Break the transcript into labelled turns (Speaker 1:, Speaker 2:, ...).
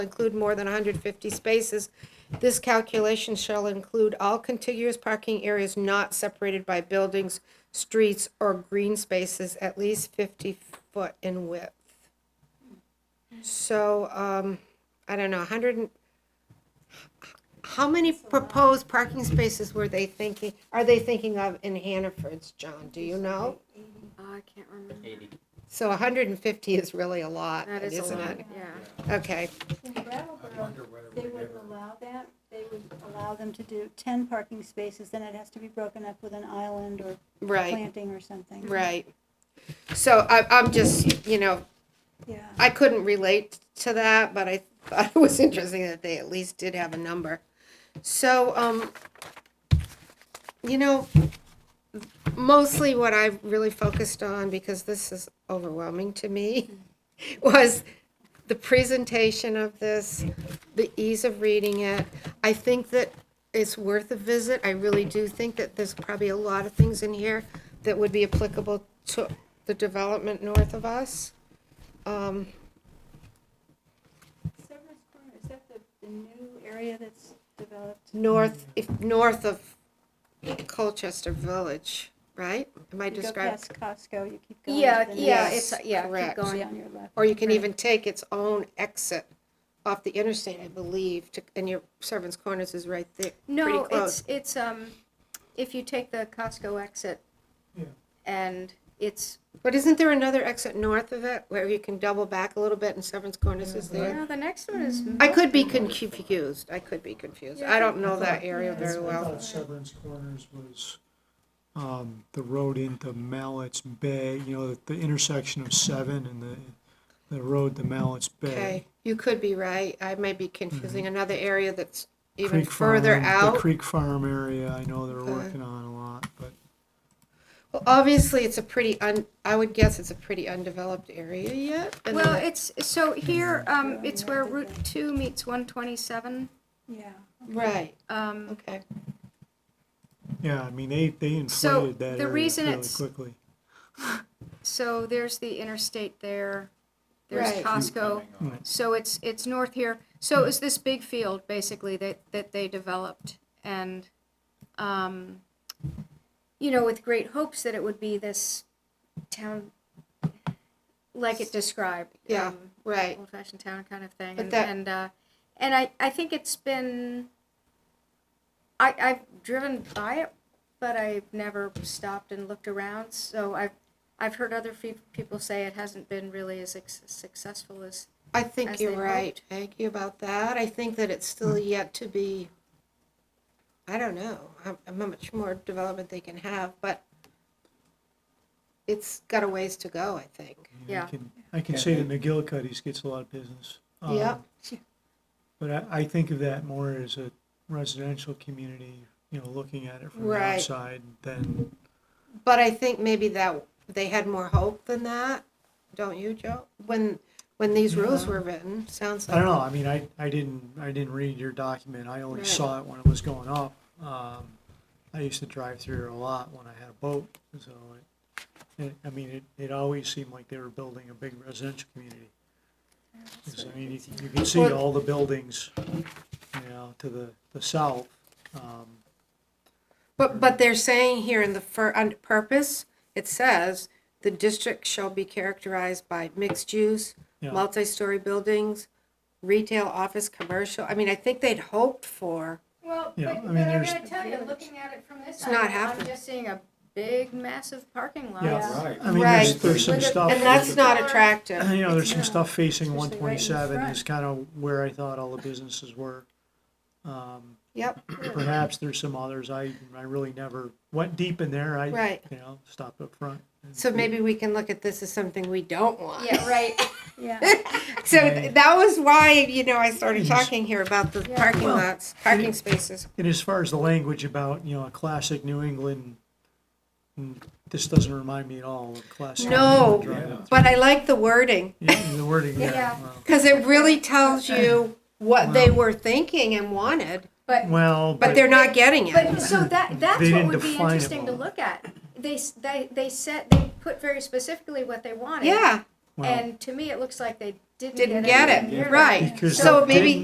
Speaker 1: include more than 150 spaces. This calculation shall include all contiguous parking areas not separated by buildings, streets, or green spaces at least 50 foot in width. So, um, I don't know, 100, and- how many proposed parking spaces were they thinking, are they thinking of in Hannaford's, John? Do you know?
Speaker 2: Oh, I can't remember.
Speaker 3: Eighty.
Speaker 1: So 150 is really a lot,
Speaker 2: That is a
Speaker 1: isn't
Speaker 2: lot,
Speaker 1: it?
Speaker 2: yeah.
Speaker 1: Okay,
Speaker 4: In Brattleboro, they would allow that, they would allow them to do ten parking spaces, then it has to be broken up with an island or
Speaker 1: right.
Speaker 4: planting or something.
Speaker 1: Right. So I, I'm just, you know,
Speaker 4: Yeah,
Speaker 1: I couldn't relate to that, but I thought it was interesting that they at least did have a number. So, um, you know, mostly what I really focused on, because this is overwhelming to me, was the presentation of this, the ease of reading it. I think that it's worth a visit. I really do think that there's probably a lot of things in here that would be applicable to the development north of us. Um,
Speaker 4: Severance Corner, is that the, the new area that's developed?
Speaker 1: north, if,
Speaker 4: Mm-hmm.
Speaker 1: north of Colchester Village, right? Am I
Speaker 4: You go
Speaker 1: describing?
Speaker 4: past Costco, you keep going.
Speaker 2: Yeah,
Speaker 4: to the
Speaker 2: yeah,
Speaker 1: Yes,
Speaker 2: it's, yeah,
Speaker 1: correct.
Speaker 2: keep
Speaker 4: next,
Speaker 2: going.
Speaker 4: On your left.
Speaker 1: Or you can even take its own exit off the interstate, I believe, to, and your Servants Corners is right there, pretty
Speaker 2: No,
Speaker 1: close.
Speaker 2: it's, it's, um, if you take the Costco exit and it's,
Speaker 1: But isn't there another exit north of it where you can double back a little bit and Servants Corners is there?
Speaker 2: no, the next one is.
Speaker 1: Mm. I could be con- confused, I could be confused. I don't know that area very
Speaker 5: I
Speaker 1: well.
Speaker 5: thought Severance Corners was, um, the road into Mallett's Bay, you know, the intersection of Seven and the, the road to Mallett's
Speaker 1: Okay,
Speaker 5: Bay.
Speaker 1: you could be right. I may be confusing another area that's even
Speaker 5: Mm-hmm. Creek
Speaker 1: further
Speaker 5: Farm,
Speaker 1: out. Uh.
Speaker 5: The Creek Farm area, I know they're
Speaker 1: Okay.
Speaker 5: working on a lot, but
Speaker 1: Well, obviously, it's a pretty un, I would guess it's a pretty undeveloped area yet. and
Speaker 2: Well,
Speaker 1: then-
Speaker 2: it's, so here, um, it's where Route two meets one twenty-seven.
Speaker 4: Yeah.
Speaker 1: Right,
Speaker 2: Um,
Speaker 1: okay.
Speaker 5: yeah, I mean, they, they
Speaker 2: So,
Speaker 5: inflated that
Speaker 2: the
Speaker 5: area
Speaker 2: reason
Speaker 5: really
Speaker 2: it's-
Speaker 5: quickly.
Speaker 2: so there's the interstate there, there's
Speaker 1: Right.
Speaker 2: Costco. So it's, it's north here. So it's this big field, basically, that, that they developed. And, um, you know, with great hopes that it would be this town, like it described.
Speaker 1: Yeah.
Speaker 2: um,
Speaker 1: Right.
Speaker 2: old fashioned town kind of thing.
Speaker 1: But
Speaker 2: and
Speaker 1: that-
Speaker 2: and, uh, and I, I think it's been I, I've driven by it, but I've never stopped and looked around. So I've I've heard other fe- people say it hasn't been really as ex- successful as
Speaker 1: I think
Speaker 2: As
Speaker 1: you're
Speaker 2: they
Speaker 1: right, Aggie, about that. I think that it's still
Speaker 5: Hmm.
Speaker 1: yet to be, I don't know, how, how much more development they can have, but it's got a ways to go, I think.
Speaker 5: I
Speaker 2: Yeah.
Speaker 5: can- I can say that McGillicuddy's gets a lot of business. um,
Speaker 1: Yeah.
Speaker 5: But I, I think of that more as a residential community, you know, looking at it from the
Speaker 1: Right.
Speaker 5: outside than,
Speaker 1: But I think maybe that, they had more hope than that, don't you, Joe? When, when these rules
Speaker 5: Yeah.
Speaker 1: were written, sounds like.
Speaker 5: I don't know, I mean, I, I didn't, I didn't read your document, I only
Speaker 1: Right.
Speaker 5: saw it when it was going up. Um, I used to drive through a lot when I had a boat, so it, it, I mean, it, it always seemed like they were building a big residential community. 'Cause, I mean, you, you can see
Speaker 1: Well-
Speaker 5: all the buildings, you know, to the, the south, um,
Speaker 1: But, but they're saying here in the fir, on purpose, it says, the district shall be characterized by mixed use,
Speaker 5: Yeah.
Speaker 1: multi-story buildings, retail, office, commercial. I mean, I think they'd hoped for,
Speaker 2: Well,
Speaker 5: Yeah, I
Speaker 2: but,
Speaker 5: mean,
Speaker 2: but I'm
Speaker 5: there's-
Speaker 2: gonna tell you, looking at it from this
Speaker 1: It's
Speaker 2: side,
Speaker 1: not
Speaker 2: I'm
Speaker 1: happening.
Speaker 2: just seeing a big, massive parking lot.
Speaker 5: yeah.
Speaker 4: Right.
Speaker 5: I mean, there's,
Speaker 1: Right.
Speaker 5: there's some
Speaker 2: With a-
Speaker 5: stuff.
Speaker 1: and that's not
Speaker 5: you
Speaker 1: attractive.
Speaker 5: know, there's some
Speaker 4: Yeah.
Speaker 5: stuff facing one
Speaker 4: Especially right in the
Speaker 5: twenty-seven
Speaker 4: front.
Speaker 5: is kind of where I thought all the businesses were. Um,
Speaker 1: Yep,
Speaker 5: perhaps there's some others, I, I really never went deep in there, I,
Speaker 1: Right.
Speaker 5: you know, stopped up front. and-
Speaker 1: so maybe we can look at this as something we don't want.
Speaker 2: Yeah, right.
Speaker 4: Yeah,
Speaker 1: So th- that was why, you know, I started
Speaker 5: Yes.
Speaker 1: talking here about the
Speaker 2: Yeah.
Speaker 1: parking
Speaker 5: Well,
Speaker 1: lots, parking spaces.
Speaker 5: And as far as the language about, you know, a classic New England, mm, this doesn't remind me at all of classic. New
Speaker 1: No.
Speaker 5: England drive-up.
Speaker 1: But I like the wording,
Speaker 5: Yeah, the wording, yeah,
Speaker 2: Yeah.
Speaker 5: well.
Speaker 1: because it really tells you what they
Speaker 5: Wow.
Speaker 1: were thinking and wanted,
Speaker 2: But
Speaker 5: well.
Speaker 1: but they're not getting it.
Speaker 2: But so that that's
Speaker 5: They
Speaker 2: what
Speaker 5: didn't
Speaker 2: would be
Speaker 5: define it
Speaker 2: interesting to
Speaker 5: well.
Speaker 2: look at. They s- they they said they put very specifically what they wanted.
Speaker 1: Yeah,
Speaker 5: Well-
Speaker 2: And to me, it looks like they didn't
Speaker 1: Didn't
Speaker 2: get
Speaker 1: get
Speaker 2: anywhere
Speaker 1: it,
Speaker 2: near
Speaker 1: right.
Speaker 5: Because
Speaker 1: So
Speaker 5: they
Speaker 1: maybe